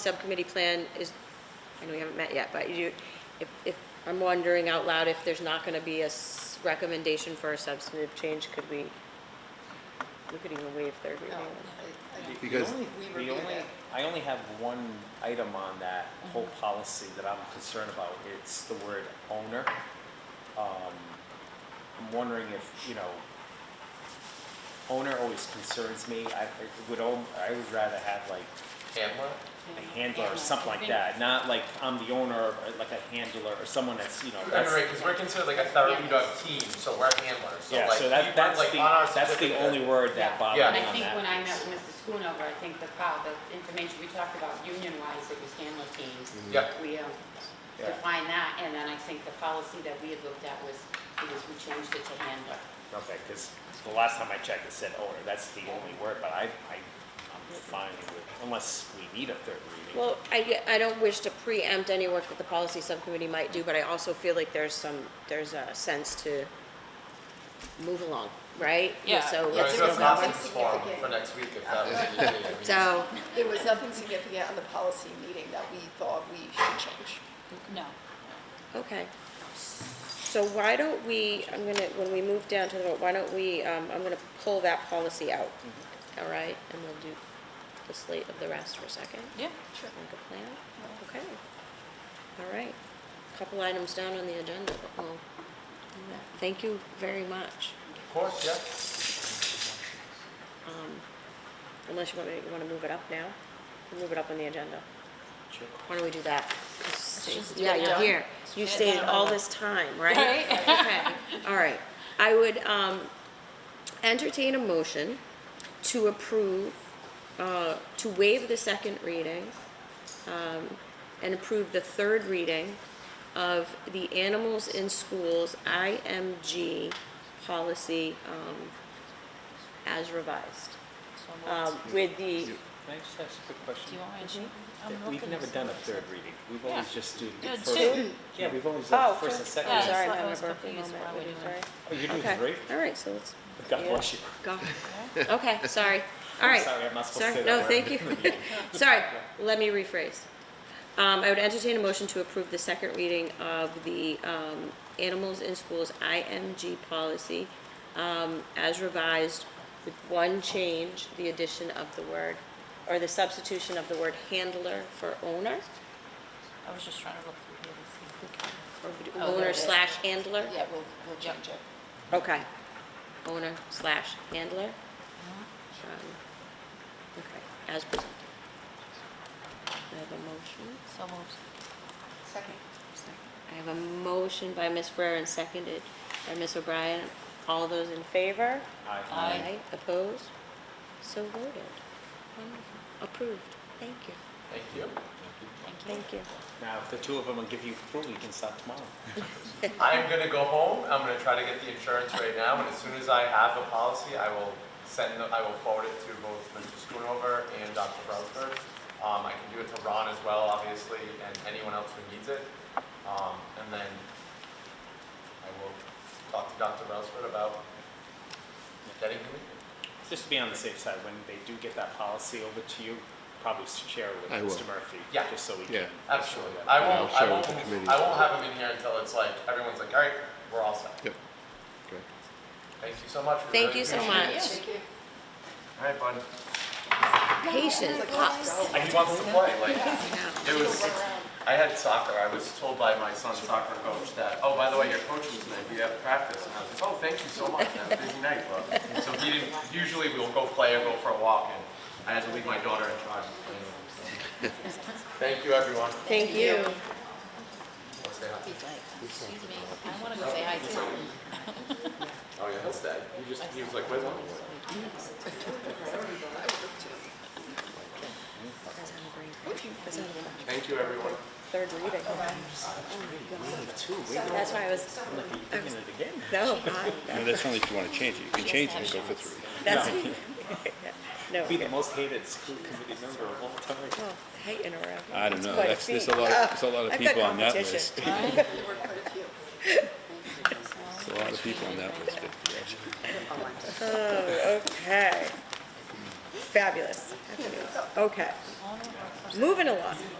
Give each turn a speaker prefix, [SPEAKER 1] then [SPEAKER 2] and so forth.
[SPEAKER 1] subcommittee plan is, I know we haven't met yet, but you, if, if, I'm wondering out loud if there's not gonna be a s- recommendation for a substantive change, could we, we could even waive third reading.
[SPEAKER 2] No, Um, I- I-
[SPEAKER 3] Because-
[SPEAKER 2] the only- we
[SPEAKER 4] The
[SPEAKER 2] reviewed
[SPEAKER 4] only,
[SPEAKER 2] that.
[SPEAKER 4] I only have one item on that
[SPEAKER 5] Mm-hmm.
[SPEAKER 4] whole policy that I'm concerned about. It's the word owner. Um, I'm wondering if, you know, owner always concerns me. I it would, al- I would rather have like
[SPEAKER 6] Handler?
[SPEAKER 4] a handler or something like that, not like I'm the owner, or like a handler or someone that's, you know, that's.
[SPEAKER 6] Right, because we're considered like a therapy dog team, so we're handlers, so
[SPEAKER 4] Yeah,
[SPEAKER 6] like,
[SPEAKER 4] so
[SPEAKER 6] we
[SPEAKER 4] that,
[SPEAKER 6] work
[SPEAKER 4] that's
[SPEAKER 6] like
[SPEAKER 4] the,
[SPEAKER 6] on our
[SPEAKER 4] that's the
[SPEAKER 6] certificate.
[SPEAKER 4] only word that
[SPEAKER 5] Yeah.
[SPEAKER 4] bothered me
[SPEAKER 5] I
[SPEAKER 4] on
[SPEAKER 5] think
[SPEAKER 4] that
[SPEAKER 5] when I
[SPEAKER 4] piece.
[SPEAKER 5] met with Mr. Schoonover, I think the pile, the information we talked about union-wise, it was handler teams.
[SPEAKER 6] Yeah.
[SPEAKER 5] We um,
[SPEAKER 4] Yeah.
[SPEAKER 5] defined that, and then I think the policy that we had looked at was, it was we changed it to handler.
[SPEAKER 4] Okay, because the last time I checked, it said owner, that's the only word, but I, I, I'm fine with, unless we need a third reading.
[SPEAKER 1] Well, I, I don't wish to preempt any work that the policy subcommittee might do, but I also feel like there's some, there's a sense to move along, right?
[SPEAKER 7] Yeah.
[SPEAKER 1] So
[SPEAKER 6] Right,
[SPEAKER 1] let's
[SPEAKER 6] so it's
[SPEAKER 1] move
[SPEAKER 6] not
[SPEAKER 1] on.
[SPEAKER 2] nothing
[SPEAKER 6] this form
[SPEAKER 2] significant.
[SPEAKER 6] for next week if that was needed. I mean,
[SPEAKER 1] So,
[SPEAKER 2] There was nothing significant on the policy meeting that we thought we should change.
[SPEAKER 7] No.
[SPEAKER 1] Okay. So why don't we, I'm gonna, when we move down to the vote, why don't we, um, I'm gonna pull that policy out. All right, and we'll do the slate of the rest for a second.
[SPEAKER 7] Yeah.
[SPEAKER 1] Sure. Like a plan? Okay. All right. Couple items down on the agenda, but we'll do that. Thank you very much.
[SPEAKER 6] Of course, yeah.
[SPEAKER 1] Um, Unless you want me, you wanna move it up now? Move it up on the agenda.
[SPEAKER 4] Sure.
[SPEAKER 1] Why don't we do that?
[SPEAKER 7] just get
[SPEAKER 1] Yeah,
[SPEAKER 7] it
[SPEAKER 1] you're
[SPEAKER 7] done.
[SPEAKER 1] here. You
[SPEAKER 7] Get it
[SPEAKER 1] stayed
[SPEAKER 7] done.
[SPEAKER 1] all this time, right?
[SPEAKER 7] Right.
[SPEAKER 1] Okay, all right. I would um, entertain a motion to approve, uh, to waive the second reading um, and approve the third reading of the Animals in Schools IMG policy um, as revised,
[SPEAKER 7] So
[SPEAKER 1] um,
[SPEAKER 7] moved.
[SPEAKER 1] with the,
[SPEAKER 4] Can I just ask a quick
[SPEAKER 7] Do
[SPEAKER 4] question?
[SPEAKER 7] you want me to? I'm
[SPEAKER 4] That We've
[SPEAKER 7] looking
[SPEAKER 4] never
[SPEAKER 7] at
[SPEAKER 4] done a
[SPEAKER 7] something.
[SPEAKER 4] third reading, we've always
[SPEAKER 7] Yeah.
[SPEAKER 4] just do the
[SPEAKER 7] Yeah,
[SPEAKER 4] first.
[SPEAKER 7] two.
[SPEAKER 4] Yeah, we've always
[SPEAKER 1] Oh,
[SPEAKER 4] done first and
[SPEAKER 1] two.
[SPEAKER 4] second.
[SPEAKER 7] Yeah,
[SPEAKER 4] reading.
[SPEAKER 1] sorry,
[SPEAKER 7] so I
[SPEAKER 1] my
[SPEAKER 7] was
[SPEAKER 1] birthday
[SPEAKER 7] confused why
[SPEAKER 1] moment, what
[SPEAKER 7] we're
[SPEAKER 1] did
[SPEAKER 7] doing
[SPEAKER 1] I-
[SPEAKER 7] it.
[SPEAKER 4] Oh, you're doing
[SPEAKER 1] okay,
[SPEAKER 4] great,
[SPEAKER 1] all right, so let's,
[SPEAKER 4] God
[SPEAKER 1] Yeah.
[SPEAKER 4] bless you.
[SPEAKER 1] Go. Okay, sorry. All right.
[SPEAKER 4] Sorry, I'm not supposed to
[SPEAKER 1] Sorry,
[SPEAKER 4] say that
[SPEAKER 1] no,
[SPEAKER 4] word.
[SPEAKER 1] thank you. Sorry, let me rephrase. Um, I would entertain a motion to approve the second reading of the, um, Animals in Schools IMG policy, um, as revised with one change, the addition of the word, or the substitution of the word handler for owner,
[SPEAKER 7] I was just trying to look through here and see.
[SPEAKER 1] or would-
[SPEAKER 7] Oh, there
[SPEAKER 1] owner
[SPEAKER 7] it is.
[SPEAKER 1] slash handler?
[SPEAKER 2] Yeah, we'll, we'll change it.
[SPEAKER 1] Okay. Owner slash handler.
[SPEAKER 7] Mm-hmm.
[SPEAKER 1] Um, Okay, as presented. I have a motion.
[SPEAKER 7] So moved.
[SPEAKER 2] Second.
[SPEAKER 1] I have a motion by Ms. Ferrer and seconded by Ms. O'Brien. All those in favor?
[SPEAKER 4] Aye.
[SPEAKER 7] Aye.
[SPEAKER 1] Opposed? So voted. Wonderful. Approved. Thank you.
[SPEAKER 6] Thank you.
[SPEAKER 1] Thank you.
[SPEAKER 4] Now, if the two of them will give you approval, you can start tomorrow.
[SPEAKER 6] I'm gonna go home, I'm gonna try to get the insurance right now, and as soon as I have a policy, I will send, the- I will forward it to both Mr. Schoonover and Dr. Rutherford. Um, I can do it to Ron as well, obviously, and anyone else who needs it. Um, and then I will talk to Dr. Rutherford about getting him.
[SPEAKER 4] Just to be on the safe side, when they do get that policy over to you, probably share it with
[SPEAKER 3] I will.
[SPEAKER 4] Mr. Murphy.
[SPEAKER 6] Yeah.
[SPEAKER 4] Just so we
[SPEAKER 3] Yeah.
[SPEAKER 4] can.
[SPEAKER 6] Absolutely. I won't,
[SPEAKER 3] I'll share
[SPEAKER 6] I
[SPEAKER 3] it
[SPEAKER 6] won't,
[SPEAKER 3] with the committee.
[SPEAKER 6] I won't have him in here until it's like, everyone's like, all right, we're all set.
[SPEAKER 3] Yep. Okay.
[SPEAKER 6] Thank you so much. We
[SPEAKER 1] Thank
[SPEAKER 6] really
[SPEAKER 1] you so
[SPEAKER 6] appreciate
[SPEAKER 1] much.
[SPEAKER 6] it.
[SPEAKER 2] you.
[SPEAKER 6] All right, bud.
[SPEAKER 1] Patience, pops.
[SPEAKER 6] Like, he wants to play, like.
[SPEAKER 1] Now,
[SPEAKER 6] It was, I had soccer, I was told by my son's soccer coach that, oh, by the way, your coach is tonight, we have practice. And I was like, oh, thank you so much, have a busy night, bro. So he didn't, usually we'll go play or go for a walk, and I had to leave my daughter in charge. of playing with him, so. Thank you, everyone.
[SPEAKER 1] Thank you.
[SPEAKER 6] Wanna say hi?
[SPEAKER 5] Excuse me, I want to go say hi to
[SPEAKER 6] Oh, yeah, that's that. He just, he was like, where's Mom? Thank you, everyone.
[SPEAKER 1] Third reading. Oh, That's why I was,
[SPEAKER 4] You're doing it again.
[SPEAKER 1] no, I-
[SPEAKER 8] No, that's only if you want to change it. You can change it and go for three.
[SPEAKER 1] that's, no.
[SPEAKER 4] Be the most hated school committee member of all time.
[SPEAKER 1] Oh, hating around.
[SPEAKER 8] I don't know.
[SPEAKER 1] quite a
[SPEAKER 8] That's, there's a
[SPEAKER 1] feat.
[SPEAKER 8] lot, of- there's a lot
[SPEAKER 1] I've
[SPEAKER 8] of
[SPEAKER 1] got
[SPEAKER 8] people on that
[SPEAKER 1] competition.
[SPEAKER 8] list.
[SPEAKER 2] There were quite a few.
[SPEAKER 8] There's a lot of people on that list, but, yeah.
[SPEAKER 1] Oh, okay. Fabulous. Okay. Moving along.